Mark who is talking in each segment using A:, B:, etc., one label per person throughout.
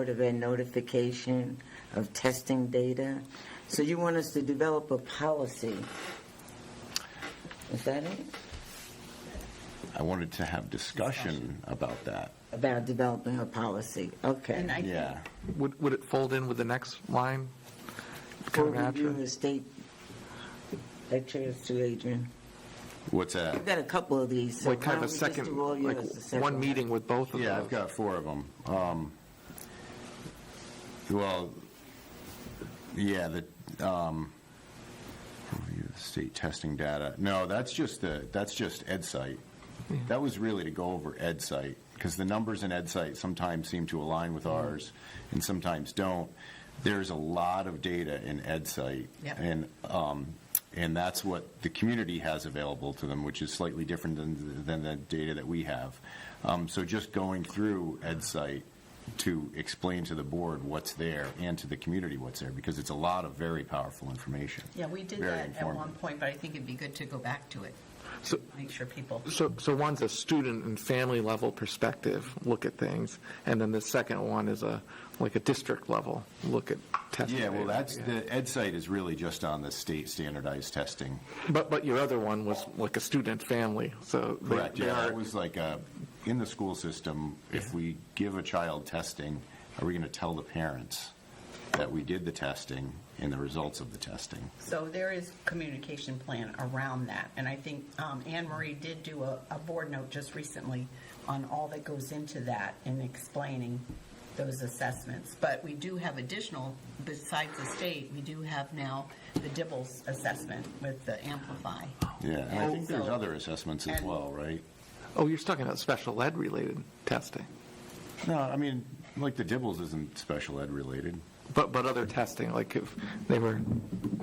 A: Board of Ed notification of testing data. So you want us to develop a policy? Is that it?
B: I wanted to have discussion about that.
A: About developing a policy,
C: And
A: okay.
C: I
B: Yeah.
C: think
D: Would, would it fold in with the next line?
A: Full
D: Kind of
A: review
D: after?
A: of state, that turns to Adrian.
B: What's that?
A: I've got a couple of these. so
D: Like kind
A: why
D: of a
A: don't we just
D: second,
A: do all
D: like
A: yours, the second
D: one meeting with both of
B: Yeah, I've
D: those?
B: got four of them. Um, well, yeah, the, um, review of state testing data. No, that's just the, that's just EdSite. That was really to go over EdSite because the numbers in EdSite sometimes seem to align with ours and sometimes don't. There's a lot of data in EdSite.
C: Yep.
B: And, um, and that's what the community has available to them, which is slightly different than, than the data that we have. Um, So just going through EdSite to explain to the board what's there and to the community what's there, because it's a lot of very powerful information.
C: Yeah, we did
B: Very
C: that at one
B: informative.
C: point, but I think it'd be good to go back to it,
D: So,
C: make sure people,
D: so, so one's a student and family level perspective, look at things, and then the second one is a, like a district level, look at testing.
B: Yeah, well,
D: data.
B: that's,
D: Yeah.
B: the EdSite is really just on the state standardized testing.
D: But, but your other one was like a student family, so. they-
B: Correct,
D: they
B: yeah,
D: are-
B: it was like, uh, in the school system, if we give a child testing, are we going to tell the parents that we did the testing and the results of the testing?
C: so there is communication plan around that, and I think um, Anne Marie did do a, a board note just recently on all that goes into that and explaining those assessments, but we do have additional, besides the state, we do have now the Dibbles assessment with the Amplify.
B: Yeah, and I think there's
C: So-
B: other assessments as
C: And-
B: well, right?
D: Oh, you're talking about special ed related testing,
B: No, I mean, like the Dibbles isn't special ed related.
D: but, but other testing, like if they were,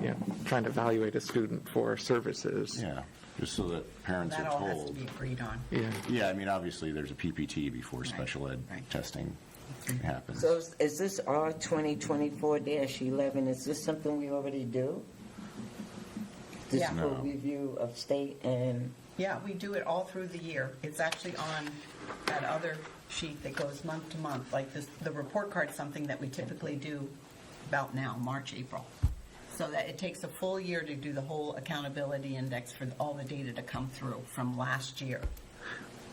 D: you know, trying to evaluate a student for services.
B: Yeah, just so that parents
C: That
B: are
C: all has to
B: told.
C: be agreed on.
D: Yeah.
B: Yeah, I mean, obviously, there's a PPT before special ed
C: right.
B: testing happens.
A: So is- is this R 2024-11, is this something we already do? This
C: Yeah.
A: full
B: No.
A: review of state and,
C: Yeah, we do it all through the year. It's actually on that other sheet that goes month to month, like this, the report card's something that we typically do about now, March, April. So that it takes a full year to do the whole accountability index for all the data to come through from last year.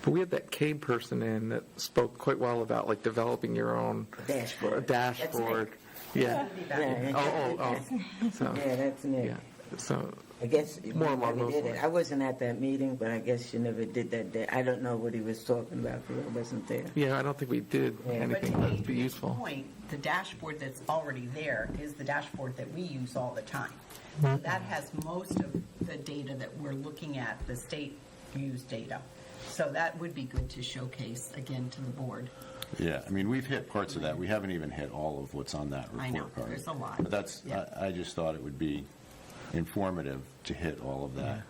D: But we had that Cade person in that spoke quite well about like developing your own
A: Dashboard.
D: dashboard. Yeah.
A: yeah,
D: Oh, oh, oh. So,
A: yeah, that's new.
D: yeah. So,
A: I guess you
D: More along
A: never
D: those
A: did it.
D: lines.
A: I wasn't at that meeting, but I guess you never did that day. I don't know what he was talking about because I wasn't there.
D: yeah, I don't think we did
A: Yeah.
C: But
D: anything
C: to
D: that would be
C: Adrian's
D: useful.
C: Point, the dashboard that's already there is the dashboard that we use all the time.
D: Mm-hmm.
C: So That has most of the data that we're looking at, the state used data. So that would be good to showcase again to the board.
B: Yeah, I mean, we've hit parts of that. We haven't even hit all of what's on that
C: I know,
B: report card.
C: there's a lot.
B: But that's,
C: Yeah.
B: I, I just thought it would be informative to hit all of that,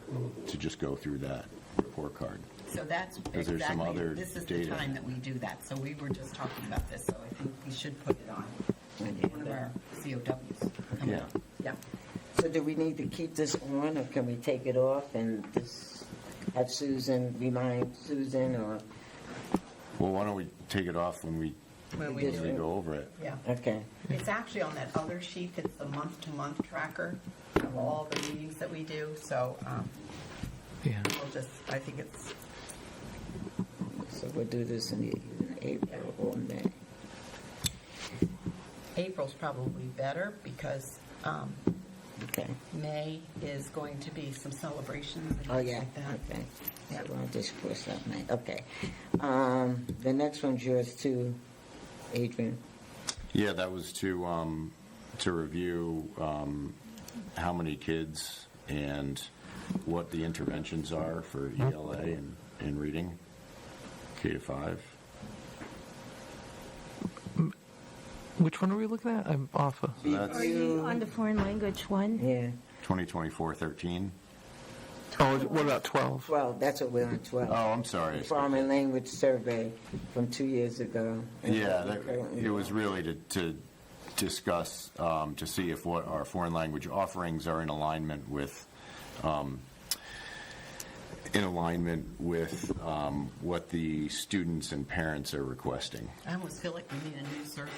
B: to just go through that report card.
C: So that's
B: Is there some
C: exactly,
B: other
C: this is the
B: data?
C: time that we do that. So we were just talking about this, so I think we should put it on one of our COWs. coming up. Yeah.
A: So do we need to keep this on, or can we take it off and just have Susan, remind Susan, or,
B: Well, why don't we take it off when we,
C: When we
B: as
A: do
B: we
A: it.
B: go over it?
C: Yeah.
A: okay.
C: It's actually on that other sheet that's the month-to-month tracker of all the meetings that we do, so um,
D: Yeah.
C: we'll just, I think it's,
A: So we'll do this in the- April or May.
C: April's probably better because um,
A: Okay.
C: May is going to be some celebrations and
A: Oh,
C: things
A: yeah,
C: like that.
A: okay.
C: Yeah.
A: So I'll just cross that night, okay. Um, The next one's yours too, Adrian.
B: Yeah, that was to, um, to review, um, how many kids and what the interventions are for E ELA and, and reading, K to five.
D: Which one are we looking at? I'm off. of-
B: So that's
E: Are you on the foreign language one?
A: Yeah,
B: 2024-13.
D: Oh, what about 12?
A: 12, that's what we're on,
B: Oh,
A: 12.
B: I'm sorry.
A: Foreign language survey from two years ago.
B: Yeah, that- it was really to, to discuss, um, to see if what our foreign language offerings are in alignment with um, in alignment with um, what the students and parents are requesting.
C: I almost feel like we need a new survey.